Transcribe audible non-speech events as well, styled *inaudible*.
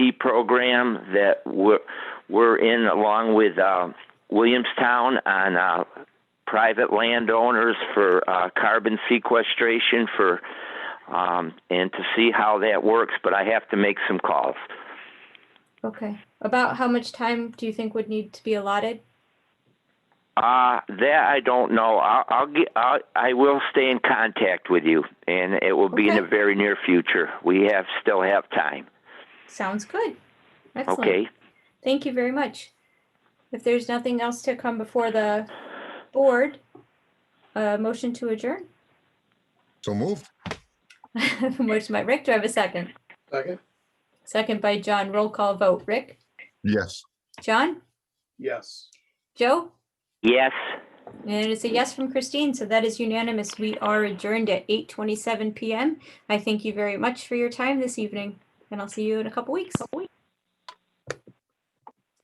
TV program that we're, we're in along with uh, Williamstown on uh, private landowners for uh, carbon sequestration for um, and to see how that works. But I have to make some calls. Okay. About how much time do you think would need to be allotted? Uh, that I don't know. I'll, I'll get. I'll, I will stay in contact with you, and it will be in the Okay. very near future. We have still have time. Sounds good. Excellent. Okay. Thank you very much. If there's nothing else to come before the board, uh, motion to adjourn. *laughs* So moved. Motion by Rick, do I have a second? Second? Second by John, roll call vote. Rick, Yes. John, Yes. Joe? Yes. And it's a yes from Christine, so that is unanimous. We are adjourned at 8:27 PM. I thank you very much for your time this evening, and I'll see you in a couple weeks.